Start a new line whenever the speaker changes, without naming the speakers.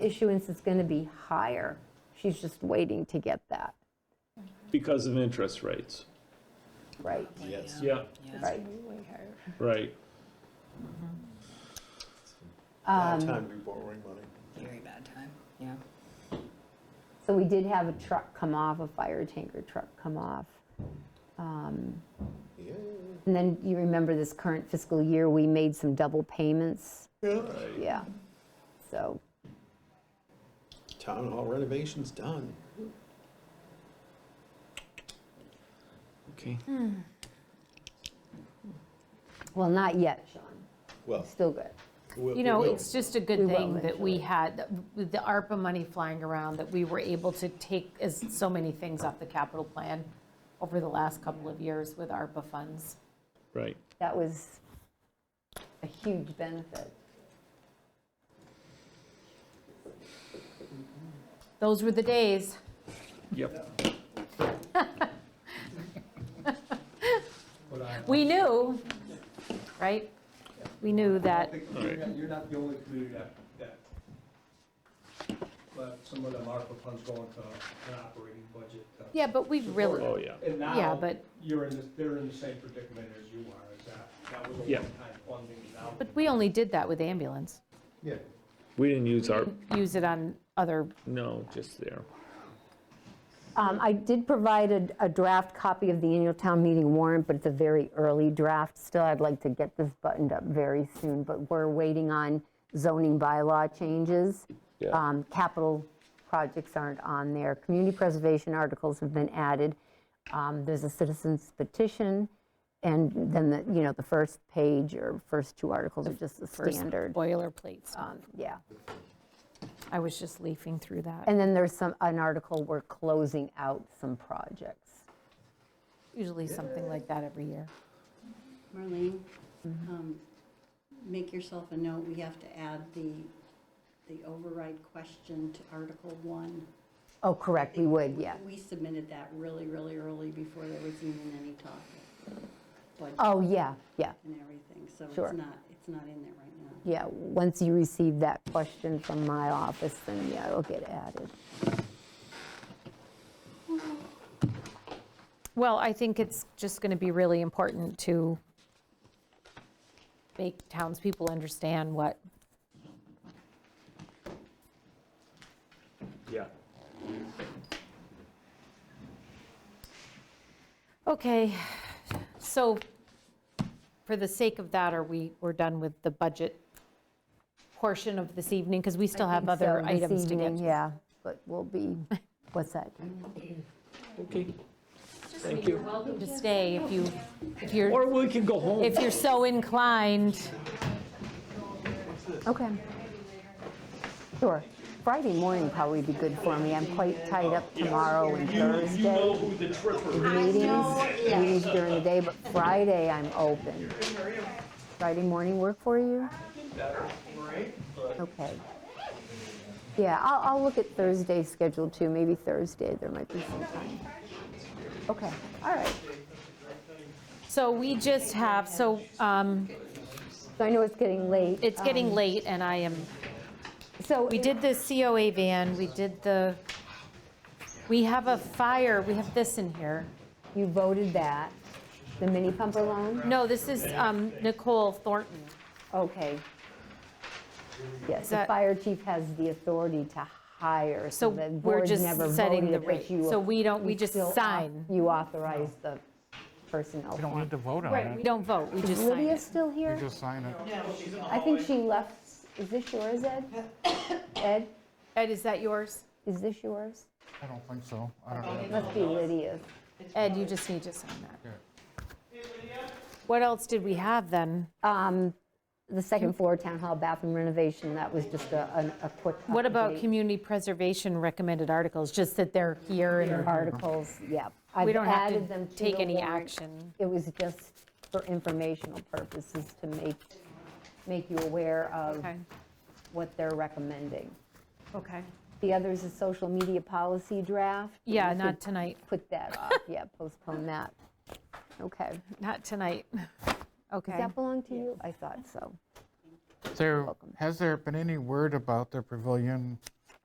issuance is going to be higher. She's just waiting to get that,
Because of interest rates.
right?
Yes.
Yeah,
Right.
right.
Um,
Bad time to be borrowing money.
Very bad time, yeah.
So we did have a truck come off, a fire tanker truck come off. Um,
Yeah.
And then you remember this current fiscal year, we made some double payments.
Yeah.
Yeah. So,
Town hall renovation's done.
Okay.
well, not yet, Sean.
Well,
Still good.
we-
You know,
we will.
it's just a
We
good
will
thing that we
eventually.
had, with the ARPA money flying around, that we were able to take as so many things off the capital plan over the last couple of years with ARPA funds.
Right.
That was a huge benefit.
Those were the days.
Yep.
But I-
We knew, right? We knew that,
All right.
You're not the only community that, that, but some of them ARPA funds go into an operating budget. uh,
yeah, but we really,
Oh, yeah.
And
Yeah,
now,
but-
you're in, the- they're in the same predicament as you are, is that, that was a
Yeah.
one-time funding, now.
but we only did that with ambulance.
Yeah.
We didn't use our,
Use it on other,
no, just there.
Um, I did provide a- a draft copy of the annual town meeting warrant, but it's a very early draft. Still, I'd like to get this buttoned up very soon, but we're waiting on zoning bylaw changes.
Yeah.
Um, Capital projects aren't on there. Community preservation articles have been added. Um, There's a citizens petition, and then, the you know, the first page or first two articles are just the
first
standard.
boilerplate stuff.
Um, Yeah.
I was just leafing through that.
And then there's some, an article, we're closing out some projects.
Usually something like that every year.
Marlene,
Mm-hmm.
um, make yourself a note, we have to add the, the override question to Article One.
Oh, correct, we would, yeah.
We submitted that really, really early before there was even any talk of budget
Oh, yeah, yeah,
and everything, so it's
Sure.
not, it's not in there right now.
yeah. Once you receive that question from my office, then yeah, it'll get added.
Well, I think it's just going to be really important to make townspeople understand what,
Yeah.
okay, so for the sake of that, are we, we're done with the budget portion of this evening? Because we still have
I think so
other
this
items to get
evening,
to.
Yeah, but we'll be, what's that?
Okay. Thank
You're
you.
welcome to stay if you, if you're,
Or we can go home.
if you're so inclined.
Okay. Sure. Friday morning probably be good for me. I'm quite tied up tomorrow and Thursday.
who the tripper
Meetings, meetings during the day, but Friday I'm open. Friday morning work for you? Okay. Yeah, I'll, I'll look at Thursday's schedule too, maybe Thursday, there might be some time. Okay, all right.
So we just have, so um,
So I know it's getting late.
it's getting late and I am
So,
We did the COA van, we did the, we have a fire, we have this in here.
you voted that, the mini pumper loan?
No, this is um, Nicole Thornton.
Okay. Yes, the
that-
fire chief has the authority to hire,
So
so the
we're
board's
just
never
setting
voted
the
it, but
rate.
you.
So we don't-
you
we just
still au-
sign.
You authorize the personnel
We don't
form.
need to vote on
Right, we
it.
don't vote, we just sign
Lydia
it.
still
We
here?
just sign it.
I think she left, is this yours, Ed? Ed,
Ed, is that yours?
is this yours?
I don't think so. I don't know.
It must be Lydia's.
Ed, you just need to sign that. What else did we have then?
Um, The second floor town hall bathroom renovation, that was just a, an- a quick.
What about
update.
community preservation recommended articles, just that they're here and
Articles, yeah.
we
I've
don't have
added
to
them
take
the
any
warrant.
action?
It was just for informational purposes to make, make you aware of
Okay,
what they're recommending.
okay.
The other is a social media policy draft.
Yeah,
We
not
could
tonight,
Put that off, yeah, postpone that. Okay.
not tonight. Okay.
Does that belong to you? I thought so.
There, has there been any word about the pavilion